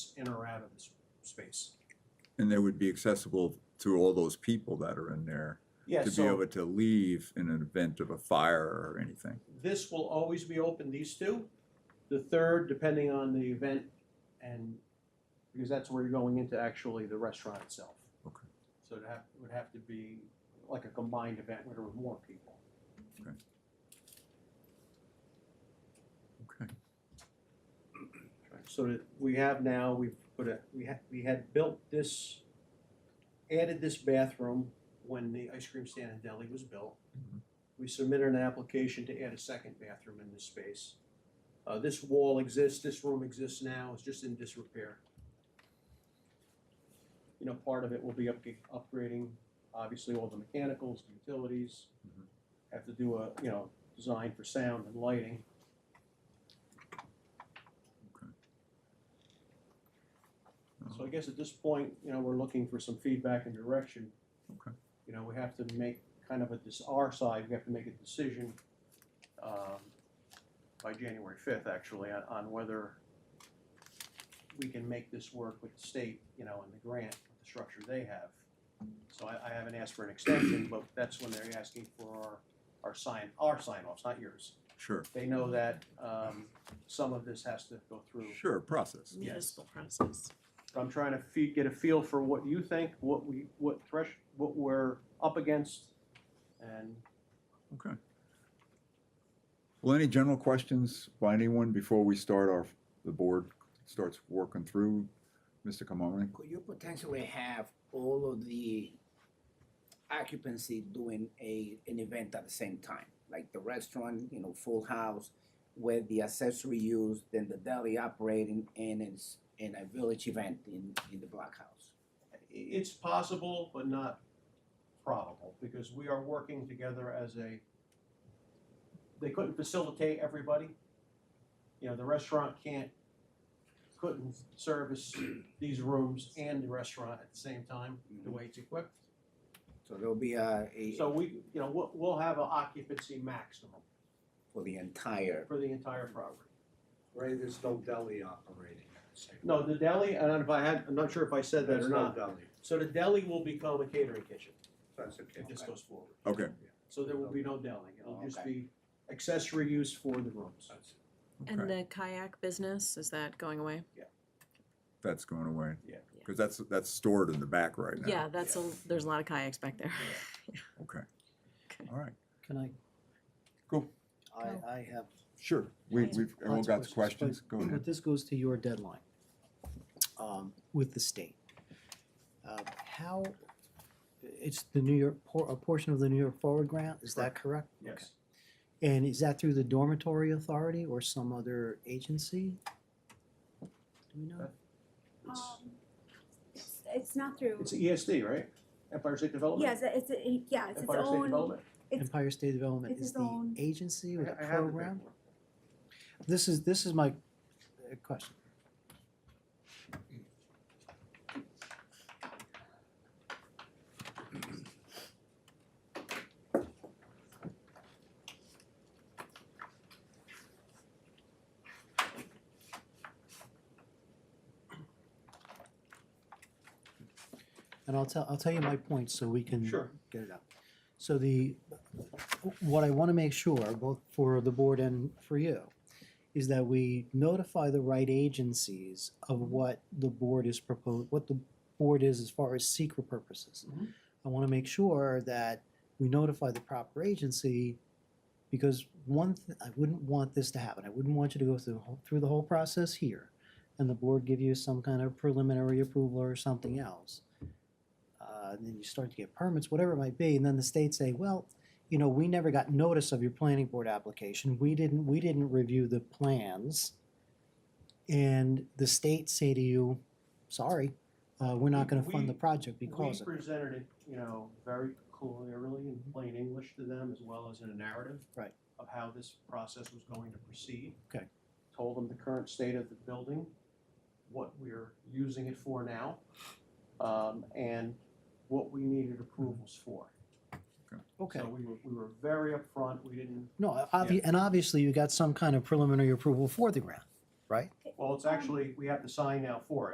folks in or out of this space. And they would be accessible to all those people that are in there Yeah, to be so able to leave in an event of a fire or anything. this will always be open, these two. The third, depending on the event and, because that's where you're going into actually the restaurant itself. Okay. So it have, would have to be like a combined event where there were more people. Okay. So that we have now, we've put a, we had, we had built this, added this bathroom when the ice cream stand and deli was built. Mhm. We submitted an application to add a second bathroom in this space. Uh, this wall exists, this room exists now, it's just in disrepair. You know, part of it will be up, upgrading, obviously all the mechanicals, utilities. Mhm. Have to do a, you know, design for sound and lighting. Uh-huh. Uh, So I guess at this point, you know, we're looking for some feedback and direction. Okay. You know, we have to make kind of a, this, our side, we have to make a decision, um, by January fifth, actually, on, on whether we can make this work with the state, you know, and the grant, the structure they have. So I, I haven't asked for an extension, but that's when they're asking for our, our sign, our sign offs, not yours. Sure, They know that, um, some of this has to go through sure, process. municipal process. I'm trying to fee, get a feel for what you think, what we, what thresh, what we're up against, and Okay. Well, any general questions by anyone before we start our, the board starts working through? Mr. Kamara? Could you potentially have all of the occupancy doing a, an event at the same time? Like the restaurant, you know, full house, with the accessory use, then the deli operating, and it's, in a village event in, in the block house? i- it's possible, but not probable, because we are working together as a, they couldn't facilitate everybody. You know, the restaurant can't, couldn't service these rooms and the restaurant at the same time, the way it's equipped. So there'll be a, a, So we, you know, we'll, we'll have an occupancy maximum for the entire, for the entire property. Right, there's no deli operating. at the same time. No, the deli, and if I had, I'm not sure if I said that There's or no not. deli, So the deli will become a catering kitchen that's okay. if this goes forward. Okay, So there will be no deli. It'll just Okay. be accessory use for the rooms. That's- And okay, the kayak business, is that going away? that's going away. Yeah. Because that's, that's stored in the back right now. Yeah, that's a, there's a lot of kayaks back there. Okay, Okay. all right, Can I? Go. I, Go. I have. sure, we, Yeah. we've, everyone lots got of the questions, but- go ahead. But this goes to your deadline, um, with the state. Uh, how, it's the New York, por- a portion of the New York Forward Grant, is that correct? Okay. Yes. And is that through the dormitory authority or some other agency? Do we know? That- Um, It's- it's- It's not through, It's ESD, right? Empire State Development? yes, it's, a- yeah, it's its Empire State own, Development? it's- Empire State Development it's is its own- the agency or the I- I have the program? paperwork. This is, this is my uh, question. And I'll tell, I'll tell you my points so we can Sure. get it out. So the, what I want to make sure, both for the board and for you, is that we notify the right agencies of what the board is proposed, what the board is as far as secret purposes. Mhm. I want to make sure that we notify the proper agency, because one, th- I wouldn't want this to happen. I wouldn't want you to go through, the whole- through the whole process here, and the board give you some kind of preliminary approval or something else. Uh, and then you start to get permits, whatever it might be, and then the state say, well, you know, we never got notice of your planning board application. We didn't, we didn't review the plans. And the state say to you, sorry, uh, we're not gonna fund the We- project We because of, it." Mm-hmm. presented it, you know, very clearly in plain English to them as well as in a narrative. Right. Of how this process was going to proceed. Okay. Told them the current state of the building, what we're using it for now, um, and what we needed approvals for. okay. So we were, we were very upfront, we didn't, No, obvi- and obviously you got some kind of preliminary approval for the grant, right? well, it's actually, we have to sign now for it.